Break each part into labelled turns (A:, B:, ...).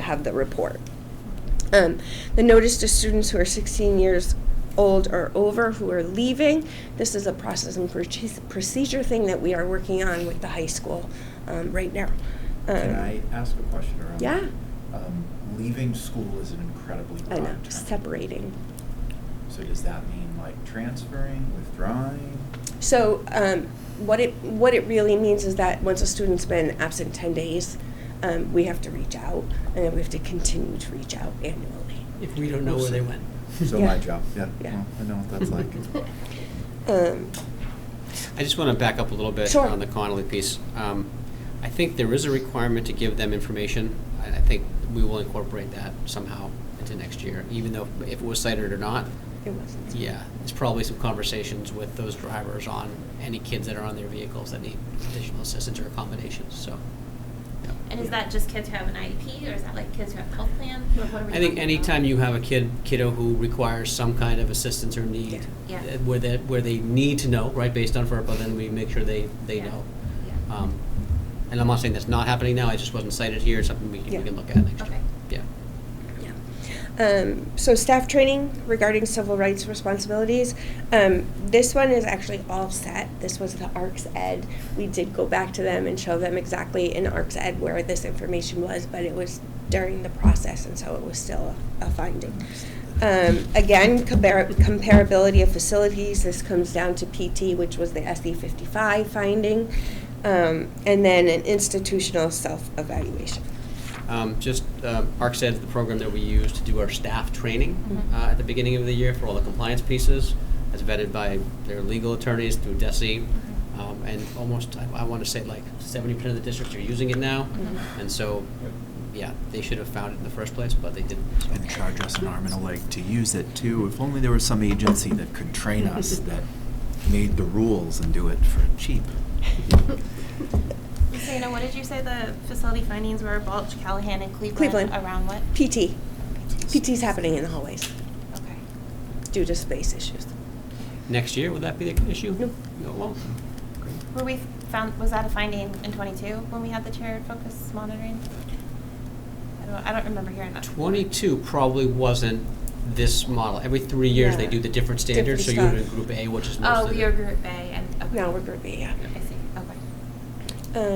A: have the report. Um, the notice to students who are 16 years old or over who are leaving. This is a process and proce- procedure thing that we are working on with the high school um, right now. Um,
B: Can I ask a question around?
A: Yeah.
B: that? Um, Leaving school is an incredibly broad
A: I know,
B: term.
A: separating.
B: So does that mean like transferring, withdrawing?
A: So um, what it what it really means is that once a student's been absent 10 days, um, we have to reach out, and then we have to continue to reach out annually.
C: If we don't know where they went.
B: So
A: Yeah.
B: my job, yeah,
A: Yeah.
B: well, I know what that's like.
A: Um,
D: I just want to back up a little bit
A: Sure.
D: on the Connolly piece. Um, I think there is a requirement to give them information. I I think we will incorporate that somehow into next year, even though if it was cited or not.
A: it wasn't.
D: Yeah, there's probably some conversations with those drivers on any kids that are on their vehicles that need additional assistance or accommodations, so. yeah.
E: And is that just kids who have an IEP, or is that like kids who have health plan? What, what are we
D: I think
E: talking
D: anytime
E: about?
D: you have a kid, kiddo who requires some kind of assistance or need,
E: Yeah. Yeah.
D: uh, where they, where they need to know, right, based on FERPA, then we make sure they, they
E: Yeah.
D: know.
E: Yeah.
D: Um, And I'm not saying that's not happening now, it just wasn't cited here, it's something we can,
A: Yeah.
D: we can look at next
E: Okay.
D: year. Yeah.
A: Yeah. Um, so staff training regarding civil rights responsibilities. Um, this one is actually all set. This was the ARCS Ed. We did go back to them and show them exactly in ARCS Ed where this information was, but it was during the process, and so it was still a, a finding. Um, again, compar- comparability of facilities. This comes down to PT, which was the SE 55 finding, um, and then an institutional self evaluation.
D: Um, Just, um, ArcSed is the program that we use to do our staff training
E: Mhm.
D: uh, at the beginning of the year for all the compliance pieces. It's vetted by their legal attorneys through DESI. Um, And almost, I want to say like 70% of the districts are using it now.
E: Mhm.
D: And so, yeah, they should have found it in the first place, but they didn't. so.
B: And charge us an arm and a leg to use it too. If only there was some agency that could train us that made the rules and do it for cheap.
E: Ms. Dana, what did you say the facility findings were, Balch, Callahan, and Cleveland?
A: Cleveland.
E: Around what?
A: PT. PT's happening in the hallways
E: Okay.
A: due to space issues.
D: Next year, would that be the issue?
A: No.
D: No, it won't.
E: Were we found, was that a finding in twenty-two when we had the chair focus monitoring? I don't, I don't remember hearing that.
D: 22 probably wasn't this model. Every three years, they
A: Yeah.
D: do the different standards, so you're
A: Different
D: in
A: stuff.
D: Group A, which is mostly.
E: Oh,
D: the-
E: we are Group A and, okay.
A: Now we're group B, yeah.
E: I see, okay.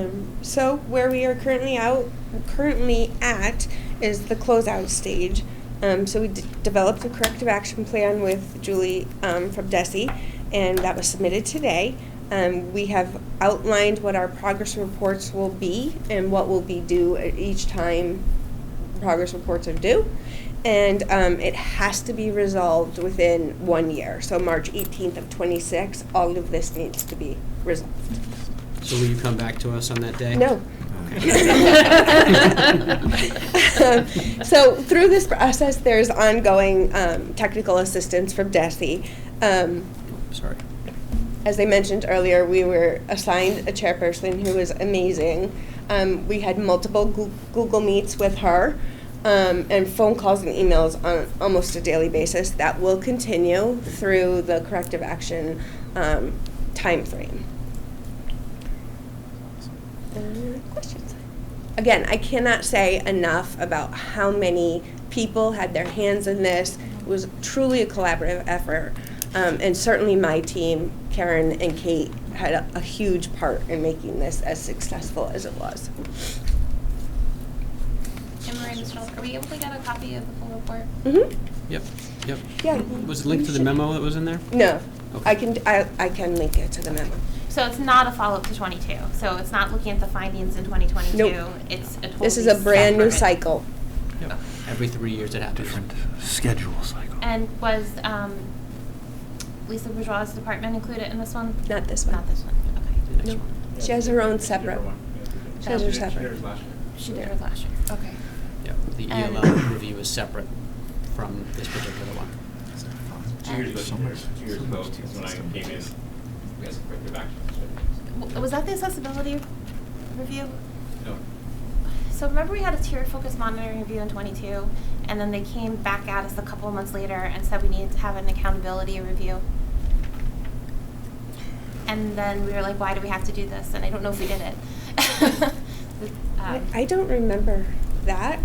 A: Um, so where we are currently out, currently at, is the closeout stage. Um, so we d- developed a corrective action plan with Julie um, from Desi, and that was submitted today. Um, we have outlined what our progress reports will be and what will be due at each time progress reports are due. And um, it has to be resolved within one year. So March 18th of 26, all of this needs to be resolved.
D: So will you come back to us on that day?
A: No.
D: Okay.
A: Um, So through this process, there's ongoing um, technical assistance from DESI. Um,
D: Oh, Sorry.
A: As I mentioned earlier, we were assigned a chairperson who was amazing. Um, We had multiple Goo- Google Meets with her um, and phone calls and emails on almost a daily basis. That will continue through the corrective action um, timeframe. Any questions? Again, I cannot say enough about how many people had their hands in this. It was truly a collaborative effort. Um, and certainly my team, Karen and Kate, had a, a huge part in making this as successful as it was.
E: And Marie, Ms. Schultz, are we able to get a copy of the full report?
A: Mm-hmm.
D: Yep, yep.
A: Yeah.
D: Was it linked to the memo that was in there?
A: No.
D: Okay.
A: I can, I, I can link it to the memo.
E: So it's not a follow-up to twenty-two, so it's not looking at the findings in twenty twenty-two?
A: Nope.
E: It's a totally
A: This is a brand new
E: separate-
A: cycle.
D: Yep. Every three years it happens.
B: Different schedule cycle.
E: And was um, Lisa Bourgeois' department included in this one?
A: Not this one.
E: Not this one,
D: The
E: okay.
D: next
A: No.
D: one.
A: She has her own separate. She has her separate.
E: She did hers last year, okay.
D: Yep, the
E: And-
D: ELL
A: Um,
D: review is separate from this particular one.
F: Two years
B: So
F: ago,
B: much-
F: two years
B: so
F: ago,
B: much
F: is when I
B: system.
F: came in, we had some corrective actions.
E: W- Was that the accessibility review?
F: No,
E: So remember we had a tier focus monitoring review in twenty-two, and then they came back at us a couple of months later and said we needed to have an accountability review? And then we were like, why do we have to do this? And I don't know if we did it. Um,
A: I I don't remember that.